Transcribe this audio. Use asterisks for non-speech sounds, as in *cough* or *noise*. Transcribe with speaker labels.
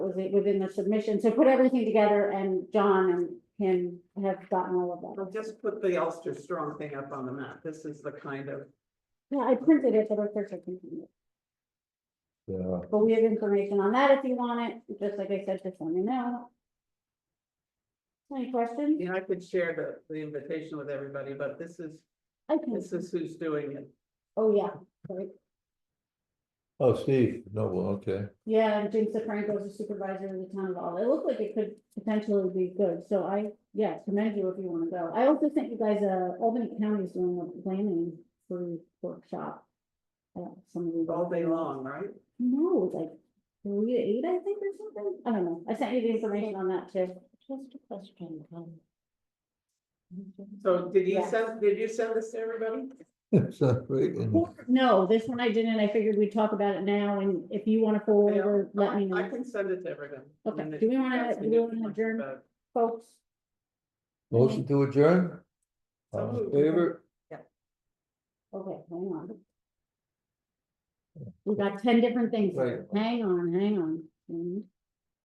Speaker 1: was it within the submission, so put everything together and John and him have gotten all of that.
Speaker 2: I'll just put the Ulster Strong thing up on the map. This is the kind of,
Speaker 1: Yeah, I printed it, but of course I can,
Speaker 3: Yeah,
Speaker 1: but we have information on that if you want it, just like I said, just let me know. Any questions?
Speaker 2: you know, I could share the, the invitation with everybody, but this is,
Speaker 1: I can,
Speaker 2: this is who's doing it.
Speaker 1: oh, yeah, right.
Speaker 3: oh, Steve, no, well, okay, *laughs*
Speaker 1: Yeah, and James DeFranco is a supervisor in the town of all. It looked like it could potentially be good, so I, yeah, commend you if you wanna go. I also think you guys, uh, Albany County is doing a planning for workshop. Uh, some of you.
Speaker 2: All day long, right?
Speaker 1: No, it's like three to eight, I think, or something. I don't know. I sent you the information on that too.
Speaker 4: Just a question, um.
Speaker 2: So did you
Speaker 1: Yes.
Speaker 2: send, did you send this to everybody?
Speaker 3: it's not great, and
Speaker 1: No, this one I didn't. I figured we'd talk about it now and if you wanna forward
Speaker 2: Yeah.
Speaker 1: or let me
Speaker 2: I
Speaker 1: know,
Speaker 2: can send it to everyone.
Speaker 1: Okay.
Speaker 2: And
Speaker 1: Do we wanna-
Speaker 2: if you
Speaker 1: do we
Speaker 2: have
Speaker 1: wanna
Speaker 2: questions
Speaker 1: adjourn?
Speaker 2: about it.
Speaker 1: folks.
Speaker 3: motion to adjourn?
Speaker 2: So
Speaker 3: All in
Speaker 2: moved.
Speaker 3: favor,
Speaker 1: Okay, hang on. We got ten different things. here. Hang on, hang on. Mhm.